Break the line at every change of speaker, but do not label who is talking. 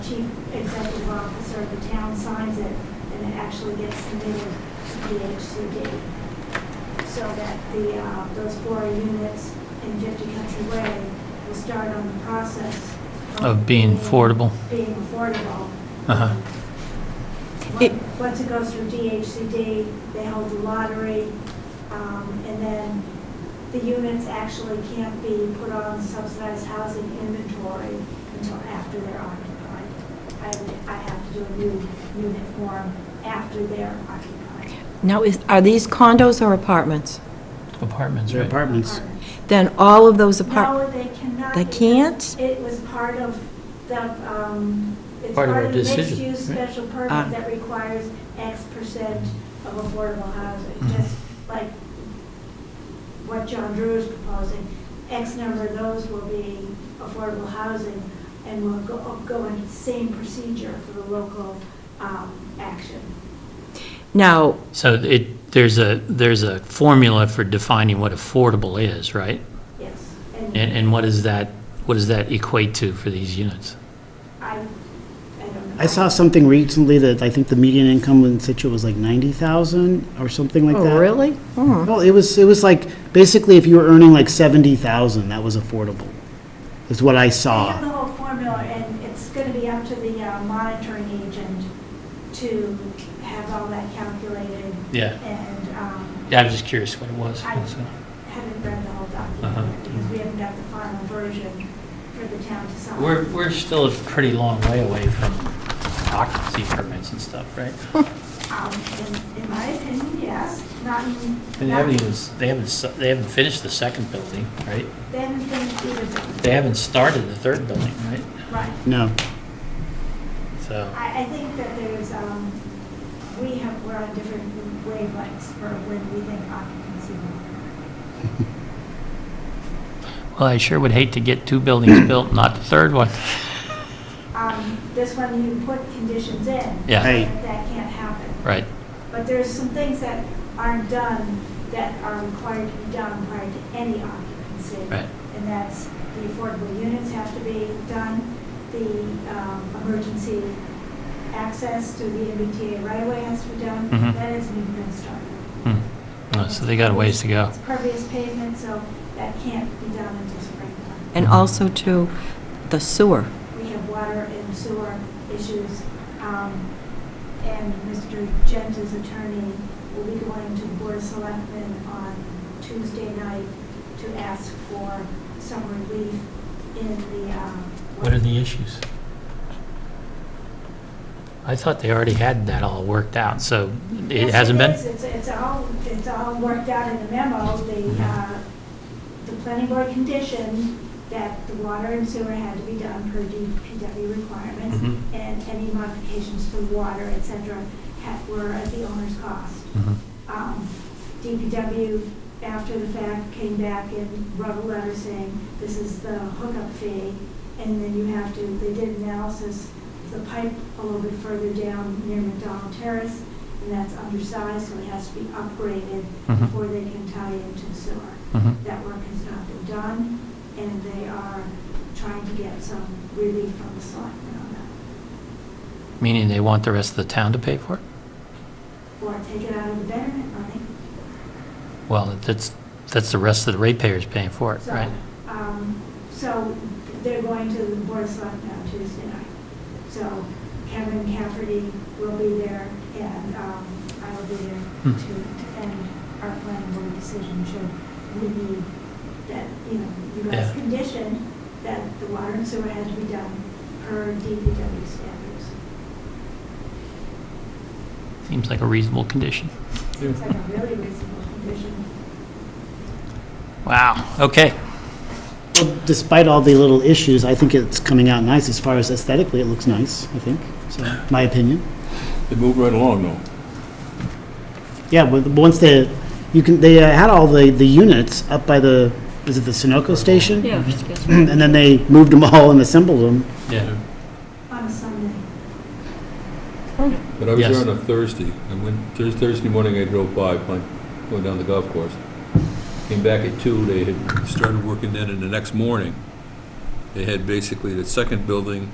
chief executive officer of the town signs it, and it actually gets submitted to DHCD. So that the, uh, those four units in 50 Country Way will start on the process.
Of being affordable.
Being affordable.
Uh-huh.
It-
Once- Once it goes through DHCD, they hold the lottery, um, and then the units actually can't be put on subsidized housing inventory until after they're occupied. I, I have to do a new unit form after they're occupied.
Now, is, are these condos or apartments?
Apartments,
They're
right?
apartments.
Then all of those apart,
No, they cannot.
They
because
can't?
It was part of the, um, it's part
Part of our
of
decision,
mixed-use
right.
special
Ah.
permit that requires X percent of affordable housing,
Mm-hmm.
just like what John Drew is proposing. X number of those will be affordable housing and will go, go into the same procedure for the local, um, action.
now,
So it, there's a, there's a formula for defining what affordable is, right?
Yes.
And, and what is that, what does that equate to for these units?
I, I don't know.
I saw something recently that I think the median income in situ was like 90,000 or something like that. Mm-hmm.
oh, really? Hmm.
Well, it was, it was like, basically if you were earning like 70,000, that was affordable, is what I
They have the
saw.
whole formula, and it's going to be up to the uh, monitoring agent to have all that calculated,
Yeah.
and um,
Yeah, I was just curious what it was.
I- haven't read the whole
Uh-huh.
document, because we haven't got the final version for the town to sign.
We're, we're still a pretty long way away from occupancy permits and stuff, right?
Um, In in my opinion, yes, not in.
And they
not-
haven't even, they haven't, s- they haven't finished the second building, right?
They haven't finished either building.
They haven't started the third building, right?
Right.
No,
So,
I, I think that there's, um, we have, we're on different wavelengths for when we think occupancy will.
well, I sure would hate to get two buildings built, not the third one.
Um, This one, you put conditions in.
Yeah.
Right.
That that can't happen.
Right,
But there's some things that aren't done that are required to be done prior to any occupancy.
Right.
And that's the affordable units have to be done, the um, emergency access to the MBTA right away has to be done.
Mhm.
That hasn't even been started.
Hmm. Uh, so they got a ways to go.
It's pervious pavement, so that can't be done until springtime.
And also to the sewer.
We have water and sewer issues, um, and Mr. Gent's attorney will be going to the Board of Selectmen on Tuesday night to ask for some relief in the, um...
What are the issues? I thought they already had that all worked out, so
Yes,
it hasn't been?
is. It's, it's all, it's all worked out in the memo,
Mm-hmm.
the, uh, the planning board conditioned that the water and sewer had to be done per DPW requirements,
Mhm.
and any modifications to water, et cetera, had, were at the owner's cost.
Mhm.
Um, DPW, after the fact, came back and wrote a letter saying, this is the hookup fee, and then you have to, they did analysis, of the pipe a little bit further down near McDonald Terrace, and that's undersized, so it has to be upgraded
Mhm.
before they can tie into the sewer.
Mhm.
That work has not been done, and they are trying to get some relief from the selectmen on that,
Meaning they want the rest of the town to pay for it?
or take it out of the betterment money.
Well, that's, that's the rest of the ratepayers paying for it,
So,
right?
um, So they're going to the Board of Selectmen on Tuesday night. So Kevin Cafferty will be there, and um, I will be there to
Hmm.
defend our planning board decision should we need that, you know, you guys
Yeah.
conditioned that the water and sewer had to be done per DPW standards.
Seems like a reasonable condition.
Seems like a really reasonable condition.
Wow, okay.
Well, despite all the little issues, I think it's coming out nice as far as aesthetically, it looks nice, I think, so, my opinion.
They move right along, though.
Yeah, but once they, you can, they uh, had all the, the units up by the, is it the Sunoco station?
Yeah.
And then they moved them all and assembled them.
Yeah.
On a Sunday,
But I was
Yes.
there on a Thursday, and when, Thurs- Thursday morning, I drove by, playing- going down the golf course. Came back at two, they had started working then, and the next morning, they had basically the second building